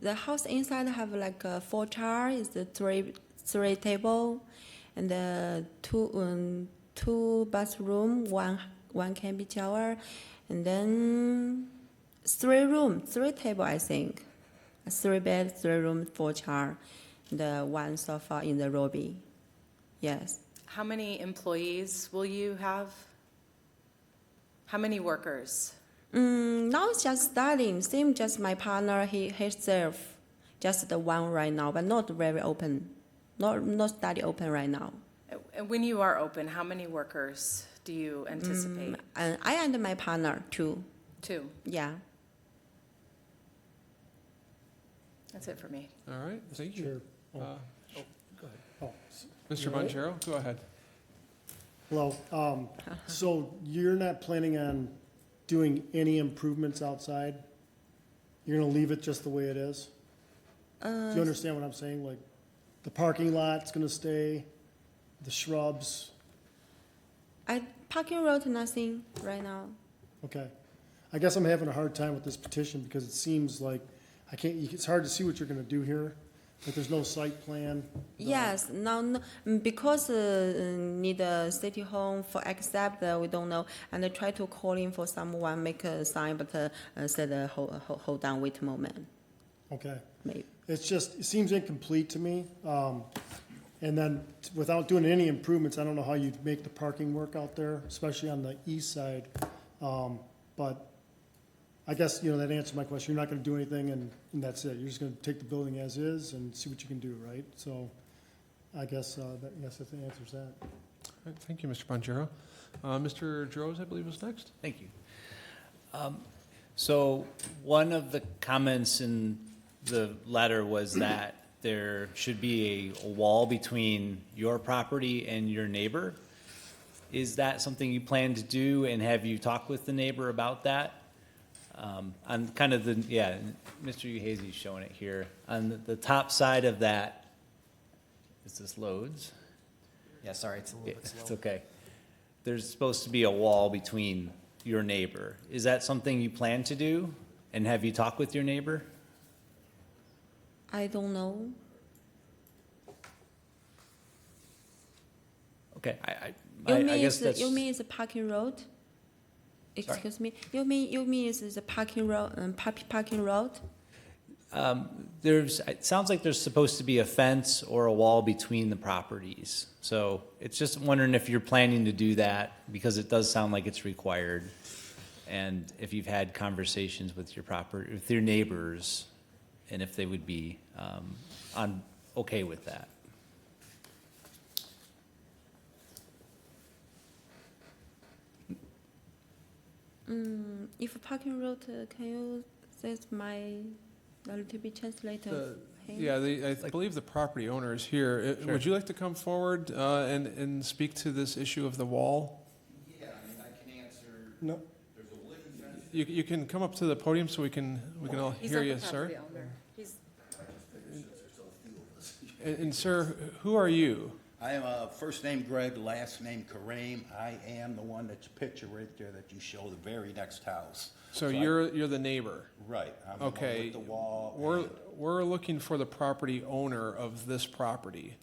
The house inside have like uh, four chair, is the three three table, and uh, two um, two bathroom, one one can be shower, and then three room, three table I think, three bed, three room, four chair, the one sofa in the lobby. Yes, How many employees will you have? How many workers? mm, now it's just starting. Same, just my partner, he himself, just the one right now, but not very open, not not study open right now. And when you are open, how many workers do you anticipate? and I and my partner too. Two. Yeah. That's it for me. All right, thank you. Sure. Oh, Uh, go ahead. Oh, s- Mr. Right. Bonjero, go ahead. Hello, um, so you're not planning on doing any improvements outside? You're gonna leave it just the way it is? Do you understand what I'm saying? Like, the parking lot's gonna stay, the shrubs, I parking road nothing right now. okay. I guess I'm having a hard time with this petition because it seems like, I can't, it's hard to see what you're gonna do here, but there's no site plan. no- Yes, now no, mm, because uh, uh, need a city home for accept uh, we don't know and I try to call in for someone make a sign but uh, uh, said uh, hold, hold hold on wait a moment Okay. maybe. It's just, it seems incomplete to me. Um, And then, t- without doing any improvements, I don't know how you'd make the parking work out there, especially on the east side. Um, But I guess, you know, that answers my question. You're not gonna do anything, and, and that's it. You're just gonna take the building as is and see what you can do, right? So I guess, uh, that, yes, that answers that. All right, Thank you, Mr. Bonjero. Uh, Mr. Droz, I believe, is next. Thank you. Um, So one of the comments in the letter was that there should be a wall between your property and your neighbor. Is that something you plan to do, and have you talked with the neighbor about that? Um, On kind of the, yeah, Mr. Uhazy's showing it here. On the- the top side of that, is this loads? Yeah, sorry, it's a little Yeah, bit It's slow. okay. There's supposed to be a wall between your neighbor. Is that something you plan to do? And have you talked with your neighbor? I don't know. Okay, I, I, You I- mean I guess is the- that's, you mean is the parking road? Excuse me. You mean you mean is the parking road um, par- parking road? um, there's, it sounds like there's supposed to be a fence or a wall between the properties. So it's just wondering if you're planning to do that, because it does sound like it's required. And if you've had conversations with your property, with your neighbors, and if they would be, um, on, okay with that. Mm, if parking road, uh, can you say my a little bit translator? The- Hey. Yeah, the- I Like- believe the property owner is here. Uh, Sure. Would you like to come forward uh, and, and speak to this issue of the wall? Yeah, I mean, I can answer, No, there's a living fence. You, you can come up to the podium so we can, we can all hear you, sir. And, and sir, who are you? I am, uh, first name Greg, last name Kareem. I am the one that's pictured right there that you show the very next house. So I- you're, you're the neighbor. Right. I'm the one Okay. With the wall. We're, and- we're looking for the property owner of this property.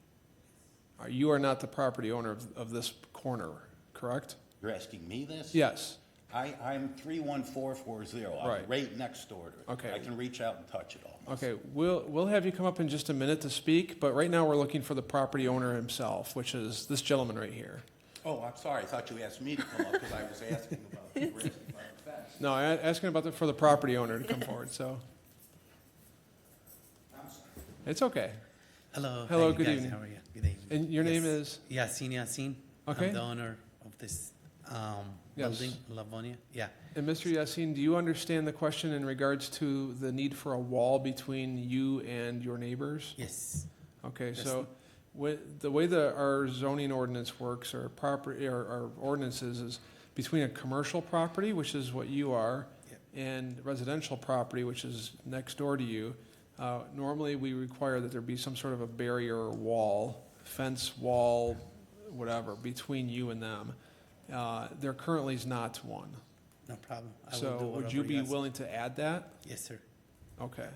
Uh, You are not the property owner of, of this corner, correct? You're asking me this? Yes. I, I'm three one four four zero. Right. I'm right next door to it. Okay. I can reach out and touch it all. Okay, we'll, we'll have you come up in just a minute to speak, but right now we're looking for the property owner himself, which is this gentleman right here. Oh, I'm sorry. I thought you asked me to come up because I was asking about the risk of the fence. No, I asking about the, for the property owner to come forward, so. It's okay. Hello. Hello, hi, good guys, evening. How are you? Good evening. And your name Yes. is? Yasin Yasin. Okay. I'm the owner of this um, Yes. building, Lavonia. Yeah. And Mr. Yassine, do you understand the question in regards to the need for a wall between you and your neighbors? Yes. Okay, Yes. so wh- the way that our zoning ordinance works or property, or our ordinances is between a commercial property, which is what you are, Yep. and residential property, which is next door to you, uh, normally we require that there be some sort of a barrier or wall, fence, wall, whatever, between you and them. Uh, There currently is not one. No problem. I will So do would whatever you be ask. willing to add that? Yes, sir. Okay.